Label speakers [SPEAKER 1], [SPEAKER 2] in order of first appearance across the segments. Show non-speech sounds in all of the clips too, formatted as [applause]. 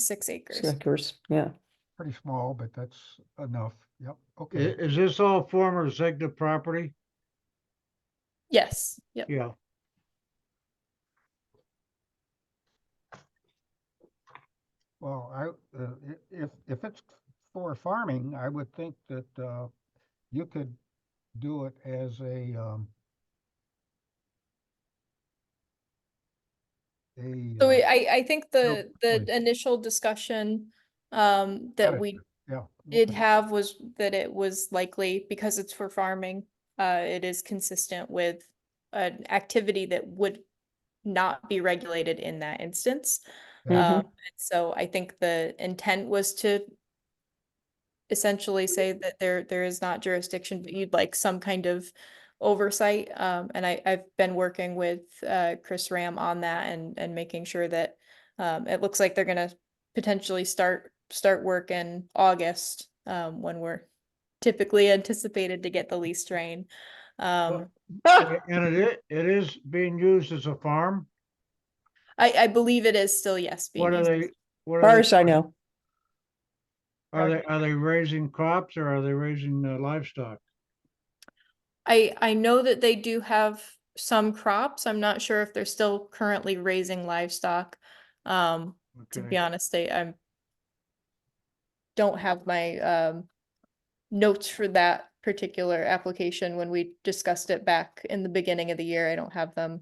[SPEAKER 1] six acres.
[SPEAKER 2] Checkers, yeah.
[SPEAKER 3] Pretty small, but that's enough. Yep,
[SPEAKER 4] I-
[SPEAKER 3] okay.
[SPEAKER 4] Is this all former Zegna property?
[SPEAKER 1] Yes, yep.
[SPEAKER 4] Yeah.
[SPEAKER 3] Well, I, uh, i- if, if it's for farming, I would think that, uh, you could do it as a, um, a,
[SPEAKER 1] So we-
[SPEAKER 3] uh,
[SPEAKER 1] I, I think the, the
[SPEAKER 3] wait.
[SPEAKER 1] initial discussion um,
[SPEAKER 3] Got
[SPEAKER 1] that
[SPEAKER 3] it.
[SPEAKER 1] we
[SPEAKER 3] yeah.
[SPEAKER 1] did
[SPEAKER 3] okay.
[SPEAKER 1] have was that it was likely, because it's for farming, uh, it is consistent with an activity that would not be regulated in that instance.
[SPEAKER 3] Mhm.
[SPEAKER 2] Mm-hmm.
[SPEAKER 1] Um, and so I think the intent was to essentially say that there, there is not jurisdiction, but you'd like some kind of oversight. Um, and I, I've been working with, uh, Chris Ram on that and, and making sure that, um, it looks like they're gonna potentially start, start work in August, um, when we're typically anticipated to get the lease rain. Um,
[SPEAKER 2] Ah,
[SPEAKER 4] And it, i- it is being used as a farm?
[SPEAKER 1] I, I believe it is still, yes. being
[SPEAKER 4] What are
[SPEAKER 1] used as-
[SPEAKER 4] they? what are they-
[SPEAKER 2] Bars I know.
[SPEAKER 4] Are they, are they raising crops or are they raising uh, livestock?
[SPEAKER 1] I, I know that they do have some crops. I'm not sure if they're still currently raising livestock. Um, to be
[SPEAKER 4] Okay.
[SPEAKER 1] honest, they, I'm don't have my, um, notes for that particular application when we discussed it back in the beginning of the year. I don't have them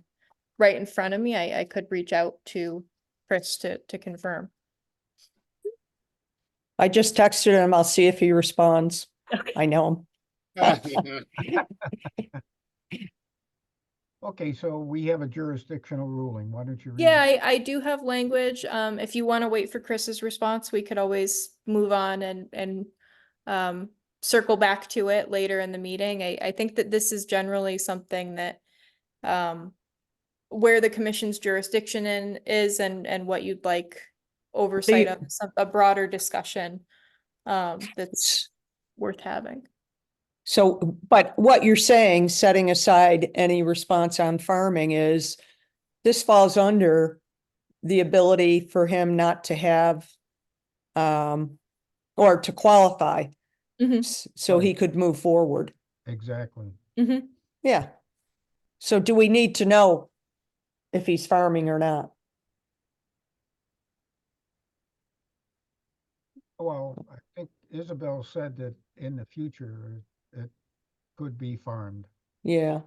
[SPEAKER 1] right in front of me. I, I could reach out to Chris to, to confirm.
[SPEAKER 2] I just texted him. I'll see if he responds. I know him.
[SPEAKER 3] Okay, so we have a jurisdictional ruling. Why don't you? read
[SPEAKER 1] Yeah,
[SPEAKER 3] it?
[SPEAKER 1] I, I do have language. Um, if you want to wait for Chris's response, we could always move on and, and um, circle back to it later in the meeting. I, I think that this is generally something that um, where the commission's jurisdiction in is and, and what you'd like oversight of, some, a broader discussion um, that's
[SPEAKER 2] S-
[SPEAKER 1] worth having.
[SPEAKER 2] So, but what you're saying, setting aside any response on farming is this falls under the ability for him not to have um, or to qualify.
[SPEAKER 1] Mhm.
[SPEAKER 2] s- So he
[SPEAKER 3] Right.
[SPEAKER 2] could move forward.
[SPEAKER 3] Exactly.
[SPEAKER 1] Mhm.
[SPEAKER 2] Yeah. So do we need to know if he's farming or not?
[SPEAKER 3] Well, I think Isabel said that in the future, it could be farmed.
[SPEAKER 2] Yeah.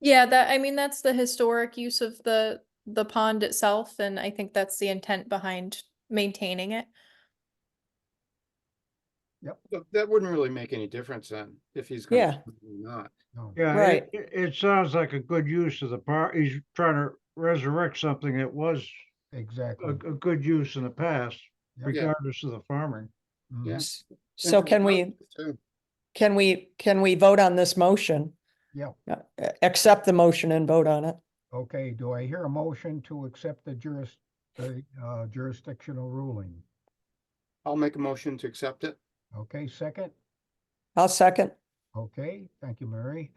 [SPEAKER 1] Yeah, that, I mean, that's the historic use of the, the pond itself, and I think that's the intent behind maintaining it.
[SPEAKER 5] But that wouldn't really make any difference then, if he's gonna.
[SPEAKER 2] Yeah.
[SPEAKER 5] farm or Not.
[SPEAKER 3] No.
[SPEAKER 4] Yeah,
[SPEAKER 2] Right.
[SPEAKER 4] it, it it sounds like a good use of the par, he's trying to resurrect something that was a,
[SPEAKER 3] Exactly.
[SPEAKER 4] a good use in the past,
[SPEAKER 3] Yeah.
[SPEAKER 4] regardless of the farming. [laughs]
[SPEAKER 3] Mhm.
[SPEAKER 5] Yeah.
[SPEAKER 2] S-
[SPEAKER 5] And
[SPEAKER 2] So
[SPEAKER 5] for
[SPEAKER 2] can we,
[SPEAKER 5] purposes too.
[SPEAKER 2] can we, can we vote on this motion?
[SPEAKER 3] Yeah.
[SPEAKER 2] Uh, a- Accept the motion and vote on it.
[SPEAKER 3] Okay, do I hear a motion to accept the juris, the uh, jurisdictional ruling?
[SPEAKER 5] I'll make a motion to accept it.
[SPEAKER 3] Okay, second?
[SPEAKER 2] I'll second.
[SPEAKER 3] Okay, thank you, Mary.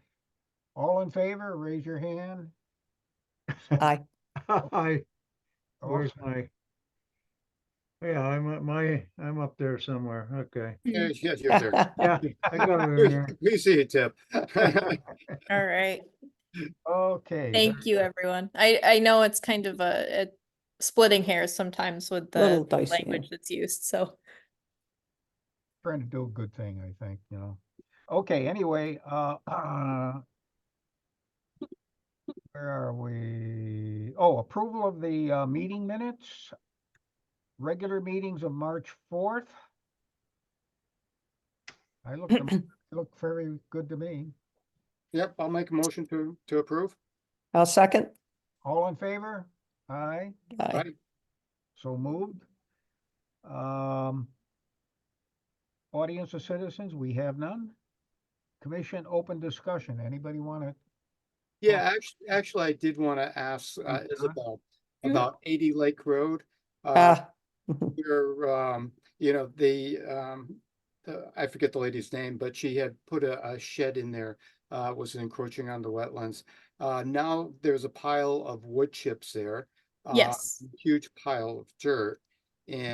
[SPEAKER 3] All in favor, raise your hand.
[SPEAKER 2] Aye.
[SPEAKER 4] I, where's
[SPEAKER 3] Awesome.
[SPEAKER 4] my? Yeah, I'm, at my, I'm up there somewhere, okay.
[SPEAKER 2] Hmm.
[SPEAKER 5] Yeah, yeah,
[SPEAKER 2] [laughs]
[SPEAKER 5] you're there.
[SPEAKER 4] Yeah, [laughs] I got it in there.
[SPEAKER 5] We see you, Tip. [laughs]
[SPEAKER 1] All right,
[SPEAKER 3] Okay.
[SPEAKER 1] thank you, everyone. I, I know it's kind of a, a splitting hairs sometimes with the
[SPEAKER 2] Little
[SPEAKER 1] the
[SPEAKER 2] dicey, yeah.
[SPEAKER 1] language that's used, so.
[SPEAKER 3] trying to do a good thing, I think, you know. Okay, anyway, uh, [clears throat] uh. Where are we? Oh, approval of the, uh, meeting minutes. Regular meetings of March fourth. I look, look very good to me.
[SPEAKER 5] Yep, I'll make a motion to, to approve.
[SPEAKER 2] I'll second.
[SPEAKER 3] All in favor? Aye,
[SPEAKER 2] Aye.
[SPEAKER 5] Right?
[SPEAKER 3] so moved. Um. Audience of citizens, we have none. Commission open discussion. Anybody wanna
[SPEAKER 5] Yeah, actually, actually, I did want to ask uh,
[SPEAKER 3] Uh-huh.
[SPEAKER 5] Isabel
[SPEAKER 1] Mhm.
[SPEAKER 5] about eighty Lake Road. Uh,
[SPEAKER 2] Ah,
[SPEAKER 5] where, um, you know, the, um, the- I forget the lady's name, but she had put a, a shed in there, uh, was encroaching on the wetlands. Uh, now there's a pile of wood chips there. uh,
[SPEAKER 1] Yes.
[SPEAKER 5] Huge pile of dirt. And